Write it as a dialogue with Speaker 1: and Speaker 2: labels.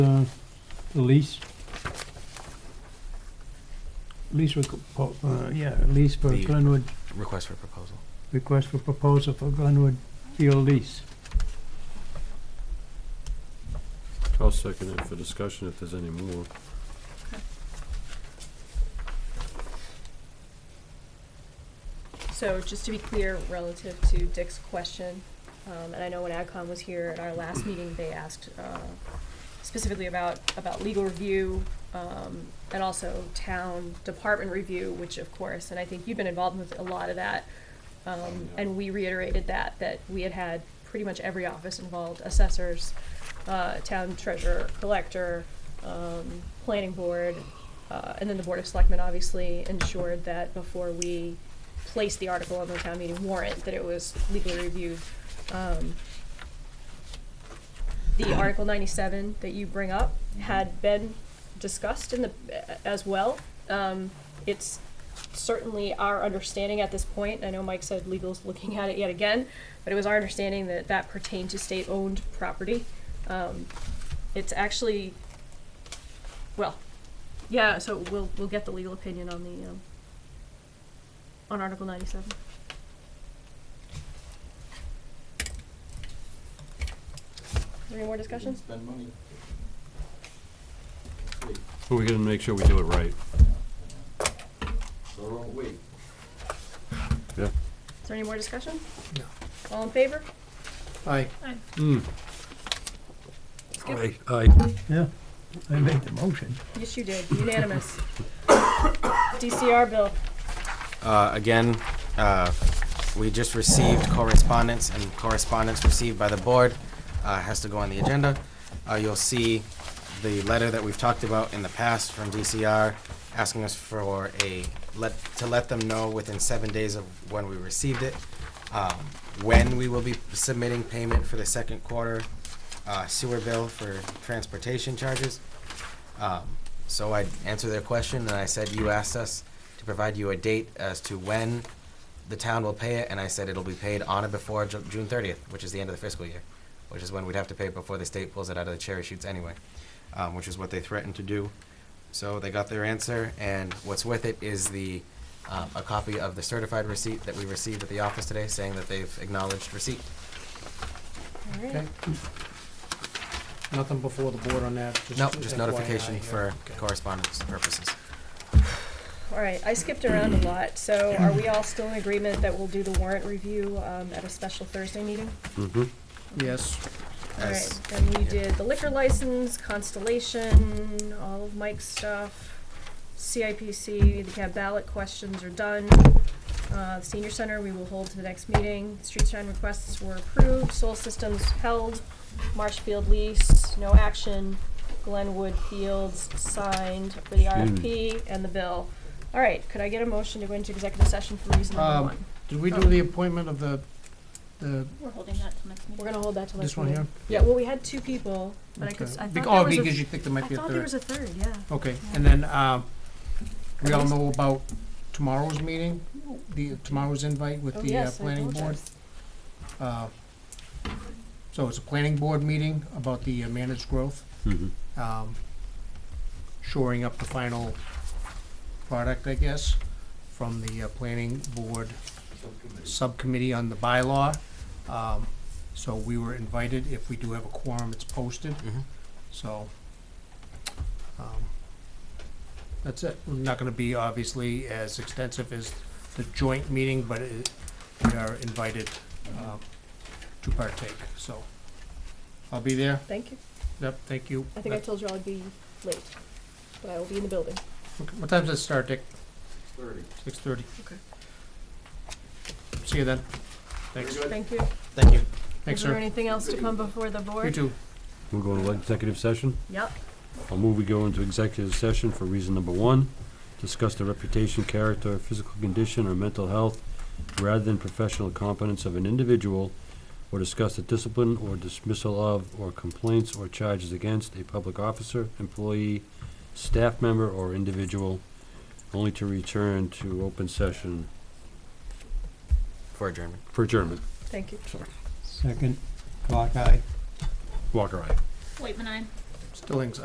Speaker 1: uh, the lease? Lease, requ- po- uh, yeah, lease for
Speaker 2: The-
Speaker 1: Glenwood,
Speaker 2: Request for proposal.
Speaker 1: request for proposal for Glenwood Field lease.
Speaker 3: I'll second it for discussion if there's any more.
Speaker 4: So just to be clear, relative to Dick's question, um, and I know when AdCom was here at our last meeting, they asked, uh, specifically about, about legal review, um, and also town department review, which of course, and I think you've been involved with a lot of that. Um, and we reiterated that, that we had had pretty much every office involved, assessors, uh, town treasurer, collector, um, planning board, uh, and then the board of selectmen obviously ensured that before we placed the article on the town meeting warrant, that it was legally reviewed. Um, the Article ninety-seven that you bring up had been discussed in the, as well. Um, it's certainly our understanding at this point, I know Mike said legal's looking at it yet again, but it was our understanding that that pertained to state-owned property. Um, it's actually, well, yeah, so we'll, we'll get the legal opinion on the, um, on Article ninety-seven. Is there any more discussion?
Speaker 5: Spend money.
Speaker 3: But we gotta make sure we do it right.
Speaker 5: So don't wait.
Speaker 4: Is there any more discussion?
Speaker 6: No.
Speaker 4: All in favor?
Speaker 6: Aye.
Speaker 3: Mm.
Speaker 4: good.
Speaker 3: Aye, aye.
Speaker 1: Yeah, I made the motion.
Speaker 4: Yes, you did, unanimous. DCR bill,
Speaker 2: Uh, again, uh, we just received correspondence and correspondence received by the board, uh, has to go on the agenda. Uh, you'll see the letter that we've talked about in the past from DCR, asking us for a, let, to let them know within seven days of when we received it, um, when we will be submitting payment for the second quarter, uh, sewer bill for transportation charges. Um, So I answered their question, and I said, you asked us to provide you a date as to when the town will pay it, and I said it'll be paid on or before Ju- June thirtieth, which is the end of the fiscal year, which is when we'd have to pay it before the state pulls it out of the cherry shoots anyway, um, which is what they threatened to do. So they got their answer, and what's with it is the, um, a copy of the certified receipt that we received at the office today, saying that they've acknowledged receipt.
Speaker 4: all right.
Speaker 6: Okay. Nothing before the board on that?
Speaker 2: No, just
Speaker 6: FYI
Speaker 2: notification
Speaker 6: here.
Speaker 2: for
Speaker 6: Okay.
Speaker 2: correspondence purposes.
Speaker 4: All right, I skipped around a lot, so are we all still in agreement that we'll do the warrant review um, at a special Thursday meeting?
Speaker 3: Mm-hmm.
Speaker 6: Yes.
Speaker 4: All
Speaker 2: As-
Speaker 4: right, then we did the liquor license, Constellation, all of Mike's stuff, CIPC, the cab ballot questions are done. Uh, the Senior Center, we will hold to the next meeting. Street sign requests were approved, Soul Systems held, Marshfield lease, no action, Glenwood Fields signed for the RFP and the bill. All right, could I get a motion to go into executive session for reason number
Speaker 6: Um,
Speaker 4: one?
Speaker 6: Did we do
Speaker 4: Oh.
Speaker 6: the appointment of the, the,
Speaker 7: We're holding that till next meeting.
Speaker 4: We're gonna hold that till next
Speaker 6: this one
Speaker 4: meeting.
Speaker 6: here?
Speaker 4: Yeah, well, we had two people, but I could, s- I
Speaker 6: Bec-
Speaker 4: thought
Speaker 6: Oh,
Speaker 4: there was a
Speaker 6: because you think there
Speaker 4: I
Speaker 6: might be a
Speaker 4: thought there
Speaker 6: third.
Speaker 4: was a third, yeah.
Speaker 6: Okay, and then, um, we all know about tomorrow's meeting, the, tomorrow's invite with
Speaker 4: Oh,
Speaker 6: the uh,
Speaker 4: yes, I
Speaker 6: planning board?
Speaker 4: apologize.
Speaker 6: Uh, So it's a planning board meeting about the uh, managed growth,
Speaker 3: Mm-hmm.
Speaker 6: um, shoring up the final product, I guess, from the uh, planning board subcommittee on the bylaw. Um, So we were invited, if we do have a quorum, it's posted,
Speaker 2: Mhm.
Speaker 6: so. um, That's it, We're not gonna be obviously as extensive as the joint meeting, but it, we are invited, um, to partake, so. I'll be there,
Speaker 4: Thank you.
Speaker 6: yep, thank you.
Speaker 4: I think I told you I'd be late, but I will be in the building.
Speaker 6: What time does it start, Dick?
Speaker 5: Thirty.
Speaker 6: Six thirty?
Speaker 4: Okay.
Speaker 6: See you then, thanks,
Speaker 5: Very good.
Speaker 4: Thank you.
Speaker 2: Thank you.
Speaker 6: thanks,
Speaker 4: Is there
Speaker 6: sir,
Speaker 4: anything else to come before the board?
Speaker 6: you too.
Speaker 3: We're going to executive session.
Speaker 4: Yep.
Speaker 3: I'll move we go into executive session for reason number one, discuss the reputation, character, physical condition, or mental health rather than professional competence of an individual, or discuss the discipline or dismissal of, or complaints or charges against a public officer, employee, staff member, or individual, only to return to open session
Speaker 2: For adjournment.
Speaker 3: for adjournment.
Speaker 4: Thank you.
Speaker 1: Second, clock eye.
Speaker 3: Walker, aye.
Speaker 7: Wait, when I'm.
Speaker 6: Stillings,